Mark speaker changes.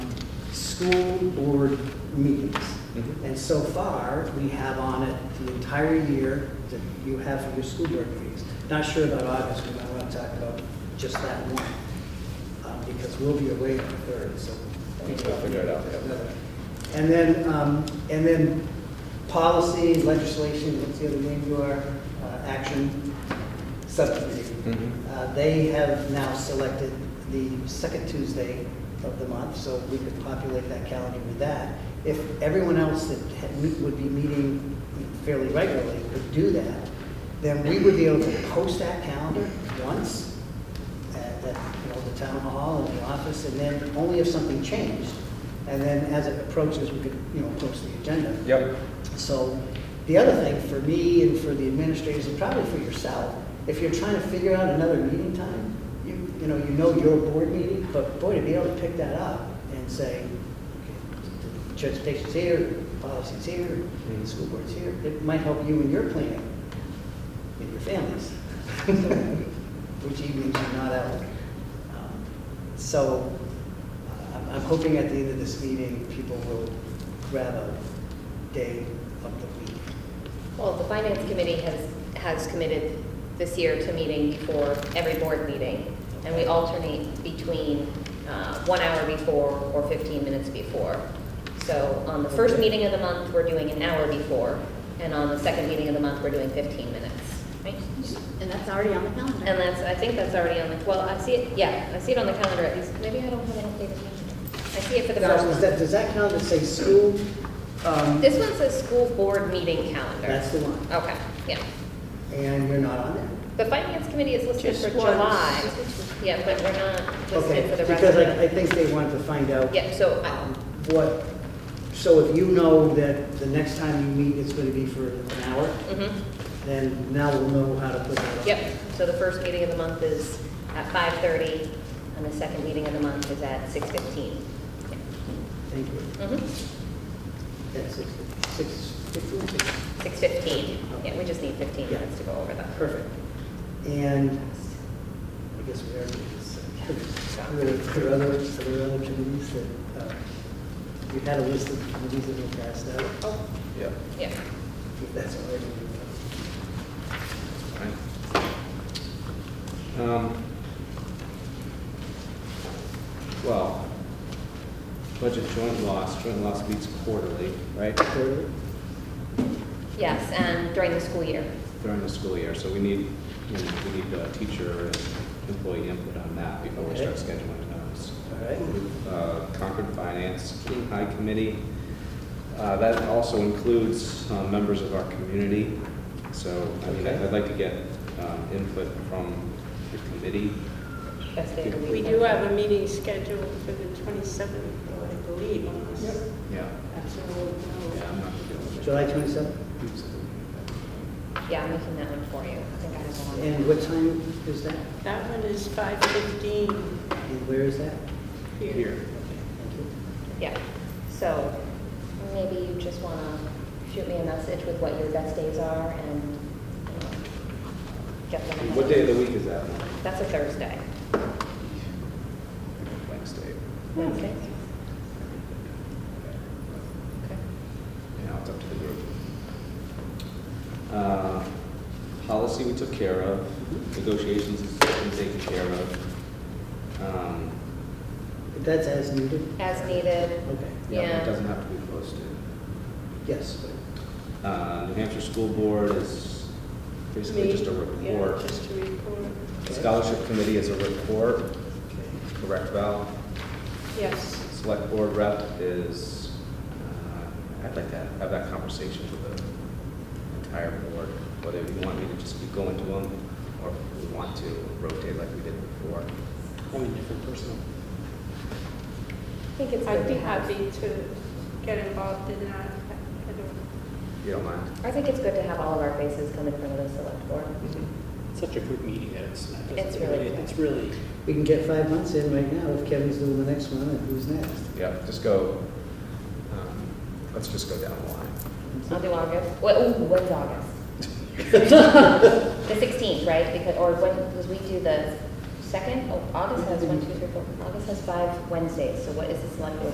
Speaker 1: school board meetings.
Speaker 2: Mhm.
Speaker 1: And so far, we have on it the entire year that you have for your school board meetings. Not sure about August, we might want to talk about just that one, um, because we'll be away on the third, so.
Speaker 2: We'll figure it out, yeah.
Speaker 1: And then, um, and then policy, legislation, what's the other name you are, uh, action subcommittee.
Speaker 2: Mhm.
Speaker 1: Uh, They have now selected the second Tuesday of the month, so we could populate that calendar with that. If everyone else that had- we would be meeting fairly regularly could do that, then we would be able to post that calendar once at, at, you know, the town hall and the office, and then only if something changed. And then as it approaches, we could, you know, post the agenda.
Speaker 2: Yep.
Speaker 1: So the other thing for me and for the administrators and probably for yourself, if you're trying to figure out another meeting time, you, you know, you know your board meeting, but boy, to be able to pick that up and say, okay, transportation's here, policy's here,
Speaker 2: Mhm.
Speaker 1: school board's here, it might help you in your planning and your families, which evenings you're not out. Um, So uh, I'm, I'm hoping at the end of this meeting, people will grab a day of the week.
Speaker 3: Well, the finance committee has, has committed this year to meeting before every board meeting, and we alternate between uh, one hour before or 15 minutes before. So on the first
Speaker 1: Okay.
Speaker 3: meeting of the month, we're doing an hour before, and on the second meeting of the month, we're doing 15 minutes. Right?
Speaker 4: And that's already on the calendar.
Speaker 3: And that's, I think that's already on the, well, I see it, yeah, I see it on the calendar at least, maybe I don't have an updated calendar. I see it for the
Speaker 1: Now,
Speaker 3: first
Speaker 1: does that,
Speaker 3: one.
Speaker 1: does that count as a school? um,
Speaker 3: This one says school board meeting calendar.
Speaker 1: That's the one,
Speaker 3: Okay, yeah.
Speaker 1: and you're not on there.
Speaker 3: The finance committee is listed
Speaker 4: Just
Speaker 3: for
Speaker 4: one.
Speaker 3: July. Yeah, but we're not listed for the rest
Speaker 1: Because
Speaker 3: of
Speaker 1: I, I
Speaker 3: it.
Speaker 1: think they wanted to find out.
Speaker 3: Yeah, so,
Speaker 1: um,
Speaker 3: I-
Speaker 1: What, so if you know that the next time you meet, it's gonna be for an hour,
Speaker 3: mhm,
Speaker 1: then now we'll know how to put that on.
Speaker 3: yep. So the first meeting of the month is at 5:30, and the second meeting of the month is at 6:15.
Speaker 1: Thank you.
Speaker 3: Mhm,
Speaker 1: That's six, six, fifteen, six.
Speaker 3: 6:15. Yeah, we just need 15
Speaker 1: Yeah.
Speaker 3: minutes to go over that.
Speaker 1: Perfect. And I guess we already, are there are there other, are there other committees that, uh, we had a list of committees that we passed out,
Speaker 3: Oh,
Speaker 2: Yeah.
Speaker 3: yeah.
Speaker 1: if that's all right. with
Speaker 2: Um, Well, budget joint loss, joint loss meets quarterly, right,
Speaker 1: you. Third,
Speaker 3: Yes, and during the school year.
Speaker 2: during the school year, so we need, you know, we need uh, teacher and employee input on that before we start
Speaker 1: Okay.
Speaker 2: scheduling those.
Speaker 1: All right.
Speaker 2: Uh, Concord Finance King High Committee. Uh, That also includes uh, members of our community, so, I mean,
Speaker 1: Okay.
Speaker 2: I'd I'd like to get um, input from the committee.
Speaker 3: Best day of the week.
Speaker 4: We do have a meeting scheduled for the 27th, though, I believe, on this.
Speaker 2: Yeah.
Speaker 4: Absolutely.
Speaker 2: Yeah, I'm not feeling
Speaker 1: July twenty-seventh?
Speaker 3: Yeah, I'm making that one for you. I think I have one.
Speaker 1: And what time is that?
Speaker 4: That one is 5:15
Speaker 1: And where is that?
Speaker 4: here.
Speaker 2: it. Here.
Speaker 1: Thank you.
Speaker 3: Yeah, so maybe you just want to shoot me a message with what your best days are and um, get them.
Speaker 2: What day of the week is that?
Speaker 3: That's a Thursday.
Speaker 2: Wednesday.
Speaker 3: Wednesday.
Speaker 2: Yeah, it's up to the group. Uh, Policy we took care of, negotiations has been taken care of. Um,
Speaker 1: But That's as needed?
Speaker 3: As needed.
Speaker 1: Okay,
Speaker 2: Yeah,
Speaker 3: Yeah.
Speaker 2: it doesn't have to be posted.
Speaker 1: yes.
Speaker 2: Uh, New Hampshire School Board is basically just a
Speaker 4: Yeah,
Speaker 2: report.
Speaker 4: just a report.
Speaker 2: Scholarship Committee is a report, correct, Val?
Speaker 4: Yes.
Speaker 2: Select Board Rep is, uh, I'd like to have that conversation with the entire board, whether you want me to just keep going to them or if we want to rotate like we did before.
Speaker 1: Only different personal.
Speaker 3: I think it's good
Speaker 4: I'd be
Speaker 3: to have.
Speaker 4: happy to get involved in that. I- I don't-
Speaker 2: If you don't mind.
Speaker 3: I think it's good to have all of our faces come in front of the select board.
Speaker 2: Mm-hmm.
Speaker 5: such a quick meeting that it's, it
Speaker 3: It's
Speaker 5: doesn't-
Speaker 3: really
Speaker 5: it's really,
Speaker 1: We can get five months in right now if Kevin's doing the next one, and who's next?
Speaker 2: Yeah, just go, um, let's just go down the line.
Speaker 3: I'll do August. Well, ooh, when's August? The 16th, right? Because, or when, because we do the second, oh, August has one, two, three, four. August has five Wednesdays, so what is the select board